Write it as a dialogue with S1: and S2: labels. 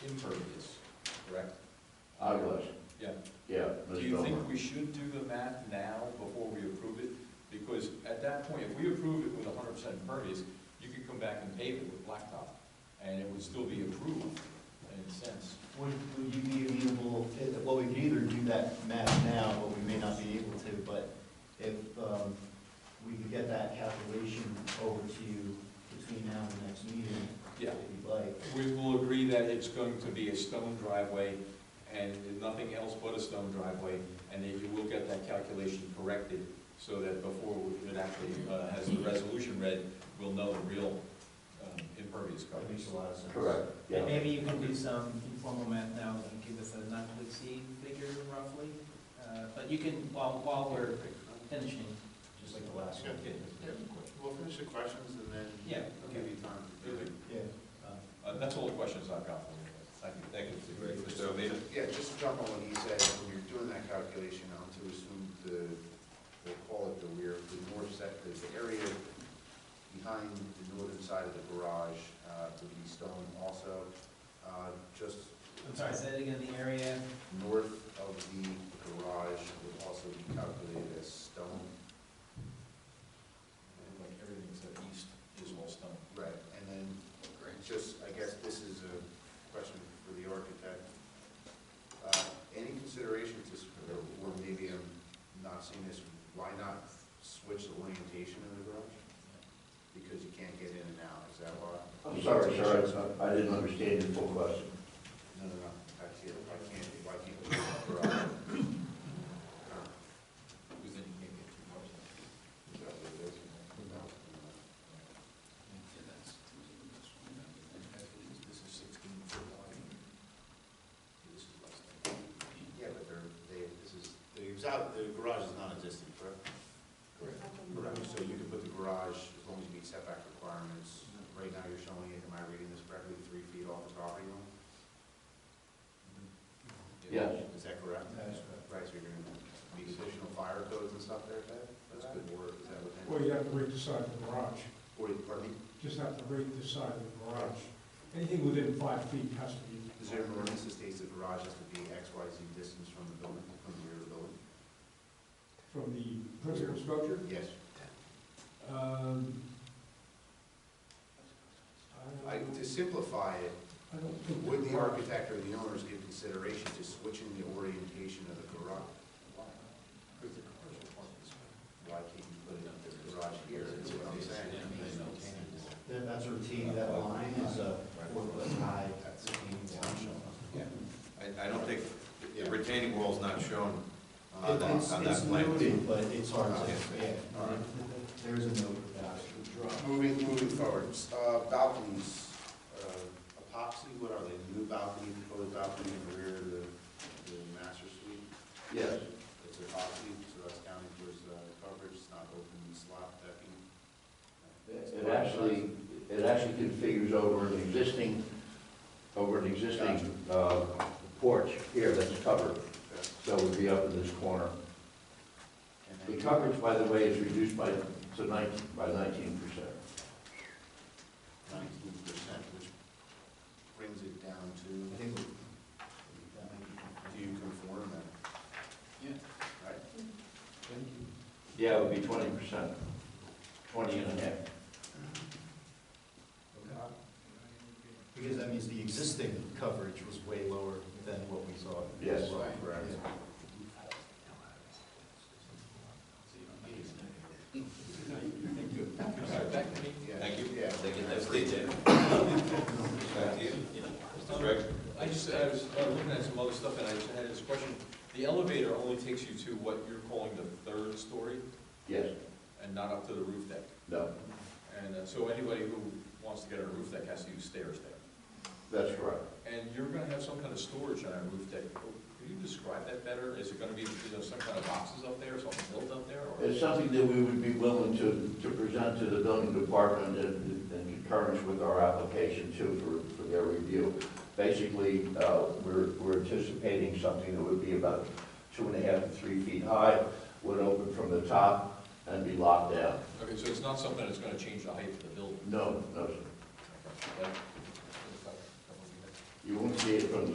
S1: impervious, correct?
S2: I was,
S1: Yeah.
S2: yeah. Ms.
S1: Do you
S2: Bellmer.
S1: think we should do the math now before we approve it? Because at that point, if we approve it with hundred percent impervious, you could come back and pave it with blacktop, and it would still be approved in a sense.
S3: Would, would you be amenable, eh, well, we could either do that math now, but we may not be able to, but if, um, we could get that calculation over to you between now and the next meeting,
S1: Yeah,
S3: if you'd like.
S1: we will agree that it's going to be a stone driveway and nothing else but a stone driveway, and that you will get that calculation corrected so that before it actually uh, has the resolution read, we'll know the real um, impervious
S3: That
S1: coverage.
S3: makes a lot of sense.
S2: Correct,
S4: And
S2: yeah.
S4: maybe you can do some informal math now and give us a not to exceed figure roughly. Uh, But you can, while, while we're finishing,
S3: Just like the last one.
S1: Okay.
S5: We'll finish the questions and then
S4: yeah,
S5: I'll
S4: okay.
S5: give you time. to do it.
S1: Really,
S3: Yeah.
S1: Uh, That's all the questions I've got for you. Thank you, thank you. Mr. O'Meara.
S5: Yeah, just to jump on what he said, when you're doing that calculation, I'm to assume the, we'll call it the rear, the north set, the the area behind the northern side of the garage, uh, to be stone also, uh, just
S4: I'm sorry, say it again, the area,
S5: north of the garage would also be calculated as stone.
S1: Like everything except east is all stone.
S5: Right, and then It's Just, I guess this is a question for the architect. Uh, Any consideration to, s- or or maybe I'm not seeing this, why not switch the orientation of the garage? Because you can't get in and out, is that why?
S2: I'm sorry, sir, I I didn't understand your full question.
S5: No, no, no, I see it, why can't, why can't we get the garage?
S1: Because then you can't get two cars.
S5: Is that what it is? No, no.
S1: This is sixteen foot wide. This is less than.
S5: Yeah, but they're, they, this is, the exou- the garage is non-existent, correct?
S1: Correct.
S5: Correct, so you can put the garage, as long as you meet setback requirements, right now you're showing it, am I reading this correctly, three feet off the property line?
S2: Yes.
S5: Is that correct?
S3: That is correct.
S5: Right, so you're gonna need additional fire codes and stuff there, Ted? That's good work, is that what? that-
S6: Well, you have to rate the side of the garage,
S5: Or, pardon me,
S6: just have to rate the side of the garage. Anything within five feet has to be.
S5: is there an ordinance that states the garage has to be X, Y, Z distance from the building, from the rear of the building?
S6: From the principal structure,
S5: Yes.
S6: um.
S5: I,
S6: don't-
S5: to simplify it,
S6: I don't think.
S5: would the architect or the owners give consideration to switching the orientation of the garage?
S1: Because the cars are parked this way.
S5: Why can't you put it in the garage here, is what I'm saying?
S3: That, that's routine, that line is a four foot high.
S5: That's-
S3: retaining wall.
S7: I, I don't think, the retaining wall's not shown
S5: Uh,
S7: on
S3: It-
S7: that,
S3: It's,
S7: on that
S3: it's
S7: plan.
S3: noted, but it's hard to,
S5: Okay.
S3: yeah,
S5: All right.
S3: there is a note for that.
S5: Moving, moving forward, uh, balconies, uh, epoxy, what are they, new balcony, proposed balcony in the rear of the, the master suite?
S2: Yes,
S5: It's epoxy, so that's counting towards the coverage, it's not open slot decking.
S2: it actually, it actually configures over an existing, over an existing uh, porch here that's covered,
S5: Okay.
S2: so it would be up in this corner.
S5: And
S2: The
S5: then-
S2: coverage, by the way, is reduced by, to nineteen, by nineteen percent.
S5: nineteen percent, which brings it down to,
S3: I think we- that might be
S5: do you conform then? Yeah. Right?
S2: Yeah, it would be twenty percent, twenty and a half.
S3: Because that means the existing coverage was way lower than what we saw.
S2: Yes.
S5: Correct.
S1: All right, back to me.
S5: Yeah.
S7: Thank you.
S5: Yeah.
S7: They get that free tip. Back to you. Greg?
S1: Um, I just, I was uh, looking at some other stuff and I just had this question. The elevator only takes you to what you're calling the third story
S2: Yes,
S1: and not up to the roof deck.
S2: no,
S1: And uh, so anybody who wants to get on a roof deck has to use stairs there.
S2: that's correct.
S1: And you're gonna have some kind of storage on a roof deck. Could you describe that better? Is it gonna be, you know, some kind of boxes up there, something built up there? or-
S2: It's something that we would be willing to, to present to the building department in, in concurrence with our application too for, for their review. Basically, uh, we're, we're anticipating something that would be about two and a half to three feet high, would open from the top and be locked down.
S1: Okay, so it's not something that's gonna change the height of the building?
S2: No, no, sir.
S1: Okay. That-
S2: You won't see it from the